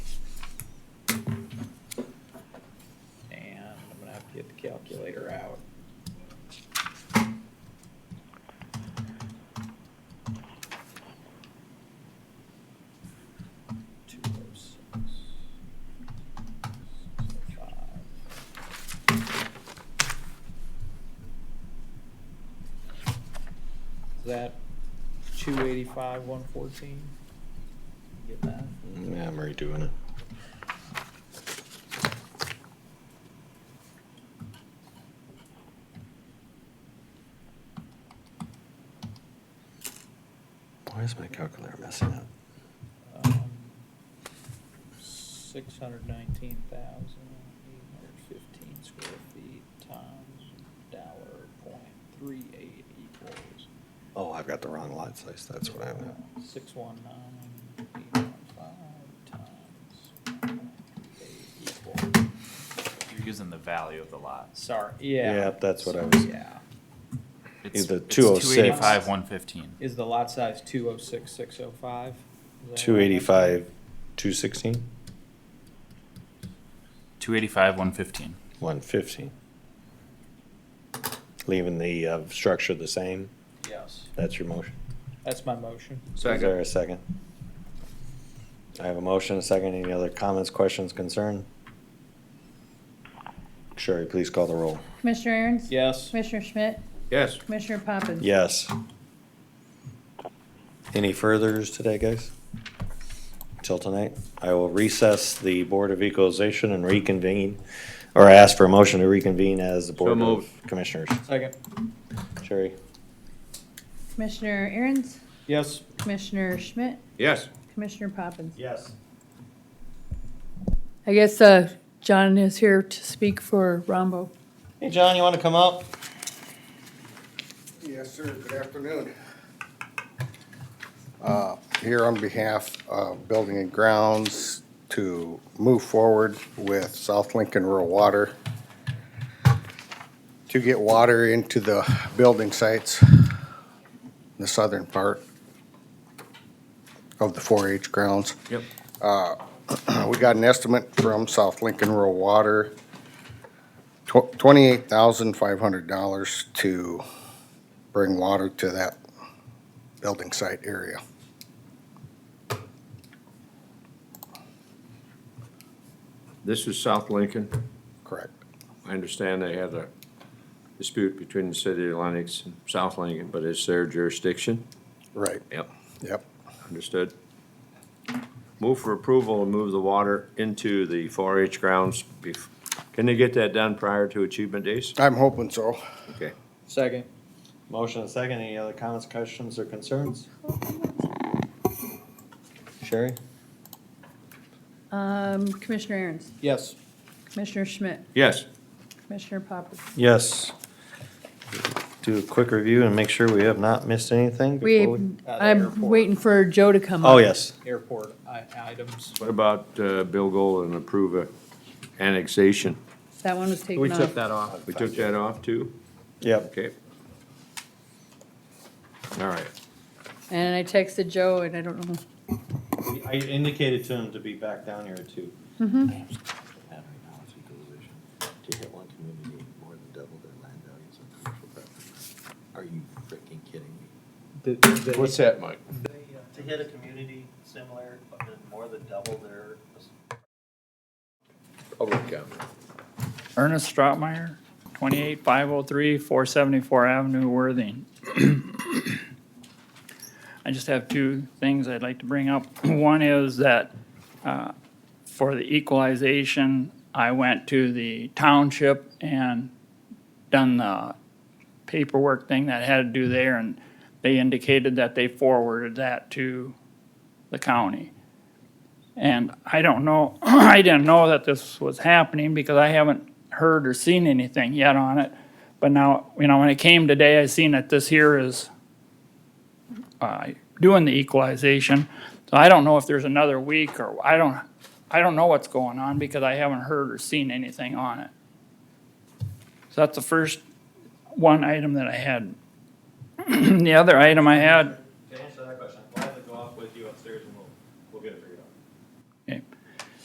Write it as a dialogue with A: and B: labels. A: get the calculator out. Two oh six. six oh five. Is that two eighty-five, one fourteen? Get that?
B: Yeah, I'm redoing it. Why is my calculator messing up?
A: Um, Six hundred nineteen thousand eight hundred fifteen square feet times dollar point three eight equals uh,
B: Oh, I've got the wrong lot size. That's what I have now.
A: six one nine eight one five times point three eight equal.
C: You're using the value of the lot.
A: Sorry, yeah.
B: Yep, that's what I was-
A: Yeah.
C: It's
B: Either
C: it's
B: 206.
C: 285, 115.
A: Is the lot size two oh six, six oh five?
B: Two eighty-five, two sixteen,
C: 285, 115.
B: one fifteen. Leaving the, uh, structure the same.
A: Yes,
B: That's your motion.
A: that's my motion.
B: Is there a second? I have a motion, a second. Any other comments, questions, concern? Sherry, please call the roll.
D: Commissioner Aaron's?
A: Yes,
D: Commissioner Schmidt?
E: Yes.
D: Commissioner Poppins?
B: Yes. Any furthers today, guys? Till tonight? I will recess the Board of Equalization and reconvene, or ask for a motion to reconvene as the Board of
E: moved.
B: Commissioners.
A: second.
B: Sherry?
D: Commissioner Aaron's?
A: Yes,
D: Commissioner Schmidt?
E: Yes.
D: Commissioner Poppins?
B: Yes.
D: I guess, uh, John is here to speak for Rombo.
B: Hey, John, you want to come up?
F: Yes, sir. Good afternoon. Uh, Here on behalf of Building and Grounds to move forward with South Lincoln Rural Water to get water into the building sites, the southern part of the 4-H grounds.
E: Yep.
F: Uh, We got an estimate from South Lincoln Rural Water, tw- $28,500 to bring water to that building site area.
E: This is South Lincoln.
F: Correct.
E: I understand they had a dispute between the city of Lenox and South Lincoln, but it's their jurisdiction.
F: Right,
E: Yep.
F: yep.
E: Understood. Move for approval and move the water into the 4-H grounds. bef- Can they get that done prior to achievement days?
F: I'm hoping so.
E: Okay.
A: second.
B: Motion and second. Any other comments, questions, or concerns? Sherry?
D: Um, Commissioner Aaron's?
A: Yes,
D: Commissioner Schmidt?
E: Yes.
D: Commissioner Poppins?
B: Yes. Do a quick review and make sure we have not missed anything
D: We,
B: before we.
A: Uh, the
D: I'm
A: airport.
D: waiting for Joe to come up.
B: Oh, yes.
A: airport i- items.
E: What about uh, Bill Gold and approve a annexation?
D: That one was taken
E: We took
D: off.
E: that off. We took that off too?
B: Yep.
E: Okay. All right.
D: And I texted Joe and I don't know.
B: I indicated to him to be back down here too.
G: To hit one community, more than double their land values on commercial property. Are you freaking kidding me?
E: What's that, Mike?
G: To hit a community similar, but then more than double their
E: Public comment.
H: Ernest Stroutmeyer, 28503, 474 Avenue, Worthing. I just have two things I'd like to bring up. One is that uh, for the equalization, I went to the township and done the paperwork thing that I had to do there, and they indicated that they forwarded that to the county. And I don't know, I didn't know that this was happening because I haven't heard or seen anything yet on it. But now, you know, when it came today, I seen that this here is uh, doing the equalization. So I don't know if there's another week or I don't, I don't know what's going on because I haven't heard or seen anything on it. So that's the first one item that I had. The other item I had eh,